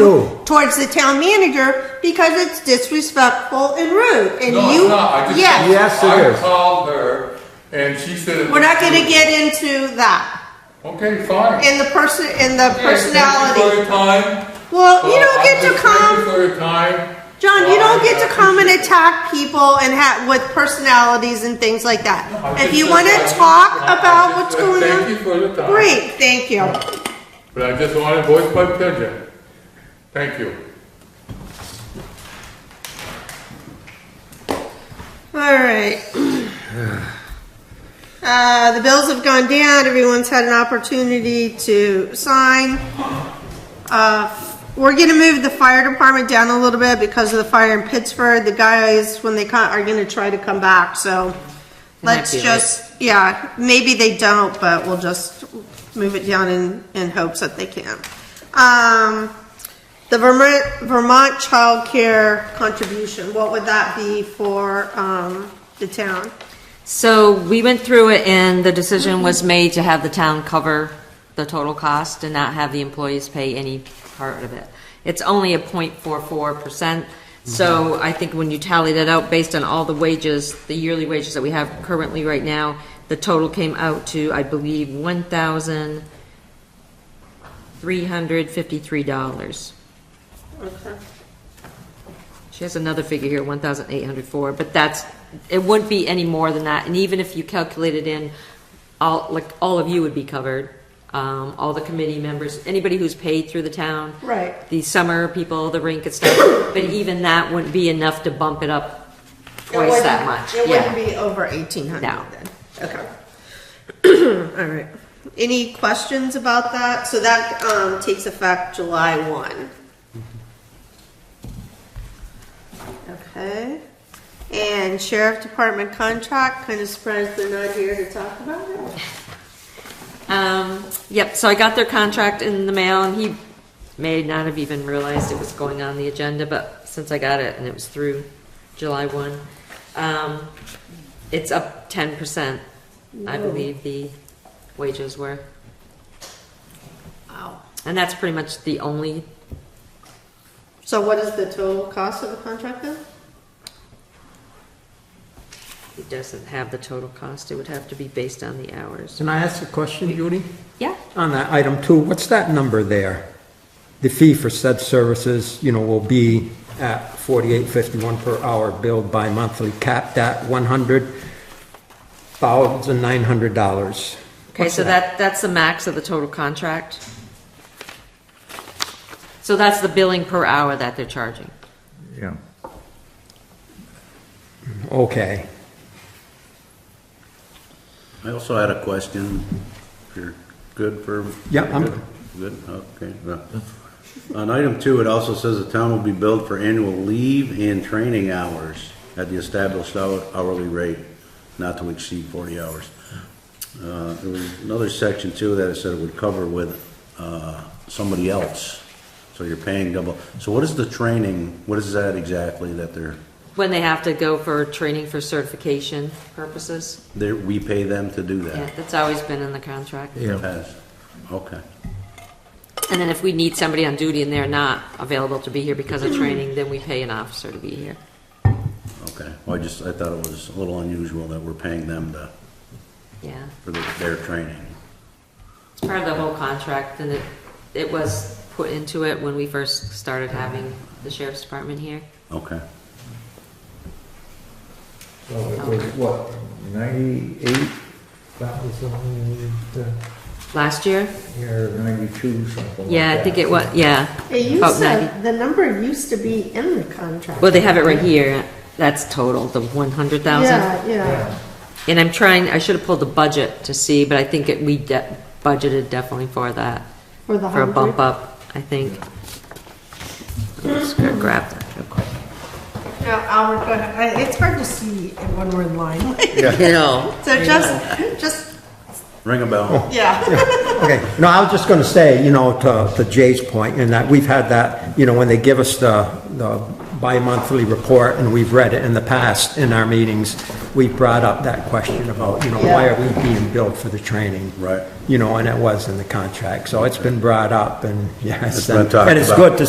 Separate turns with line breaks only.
No.
towards the town manager because it's disrespectful and rude. And
No,
you,
it's not. I just-
yes,
Yes, it
I
is.
called her and she said. it
we're not
was-
going to get into that.
Okay, fine.
In the person, in the
Okay, Thank you for
personality.
your time.
Well, you
Uh,
don't get
I'm
to
just thank
come.
you For your time.
John, you don't get to come and
Well, I- I appreciate
attack people and ha with personalities and things like that.
I'm
If
just
you
saying
want to
that I'm just-
talk
I'm
about
just
what's
saying
going
Thank you
on,
for your time.
great, thank you.
But I just wanted to voice my opinion. Thank you.
All right. Uh, the bills have gone down, everyone's had an opportunity to sign. Uh, we're gonna move the fire department down a little bit because of the fire in Pittsburgh. The guys, when they come, are gonna try to come back, so let's
be late.
just, yeah, maybe they don't, but we'll just move it down in, in hopes that they can. Um, the Vermont, Vermont Child Care contribution, what would that be for, um, the town?
So we went through it and the decision was made to have the town cover the total cost and not have the employees pay any part of it. It's only a 0.44 percent. So I think when you tally that out, based on all the wages, the yearly wages that we have currently right now, the total came out to, I believe, one thousand three hundred fifty-three dollars. She has another figure here, one thousand eight hundred four, but that's, it wouldn't be any more than that, and even if you calculated in, all, like, all of you would be covered, um, all the committee members, anybody who's paid through the town.
Right.
The summer people, the rink and stuff, but even that wouldn't be enough to bump it up twice that much,
It wouldn't
yeah.
be over eighteen hundred
No.
then, okay. All right, any questions about that? So that, um, takes effect July one. Okay, and sheriff department contract, kinda surprised they're not here to talk about it.
Um, yep, so I got their contract in the mail, and he may not have even realized it was going on the agenda, but since I got it, and it was through July one, um, it's up ten percent, I believe the wages were.
Wow.
And that's pretty much the only,
So what is the total cost of the contract then?
it doesn't have the total cost, it would have to be based on the hours.
Can I ask a question, Judy?
Yeah,
On that item two, what's that number there? The fee for said services, you know, will be at forty-eight fifty-one per hour billed bi-monthly, capped at one hundred thousand nine hundred dollars.
okay, so that, that's the max of the total contract. So that's the billing per hour that they're charging.
Yeah.
Okay.
I also had a question. If you're good for?
Yeah, I'm-
Good, okay. well. On item two, it also says the town will be billed for annual leave and training hours at the established hou- hourly rate, not to exceed forty hours. Uh, There was another section too that it said it would cover with uh, somebody else, so you're paying double. So what is the training, what is that exactly that they're,
When they have to go for training for certification purposes?
they're, we pay them to do
Yeah,
that?
that's always been in the contract.
Yeah.
Yes. Okay.
And then if we need somebody on duty and they're not available to be here because of training, then we pay an officer to be here.
Okay, well, I just, I thought it was a little unusual that we're paying them to,
Yeah,
for their, their training.
it's part of the whole contract and it, it was put into it when we first started having the sheriff's department here.
Okay,
So it was what, ninety-eight? That was only the
Last year?
year ninety-two, something like that.
Yeah, I think it was, yeah.
It used
About
to,
90.
the number used to be in the contract.
Well, they have it right here. That's total, the one hundred thousand.
Yeah, yeah.
And I'm trying, I should have pulled the budget to see, but I think it, we de- budgeted definitely for that.
For the
a bump
100?
up, I think. I'm just gonna grab that real quick.
Now, Albert, go ahead. I- It's hard to see when we're in line.
You know,
So just, just,
ring a bell.
yeah.
Okay, no, I was just gonna say, you know, to, to Jay's point, in that we've had that, you know, when they give us the, the bi-monthly report, and we've read it in the past in our meetings, we brought up that question about, you know, why are we being billed for the training?
Right.
You know, and it was in the contract, so it's been brought up, and yes,
It's been
and
talked
and it's
about.
good to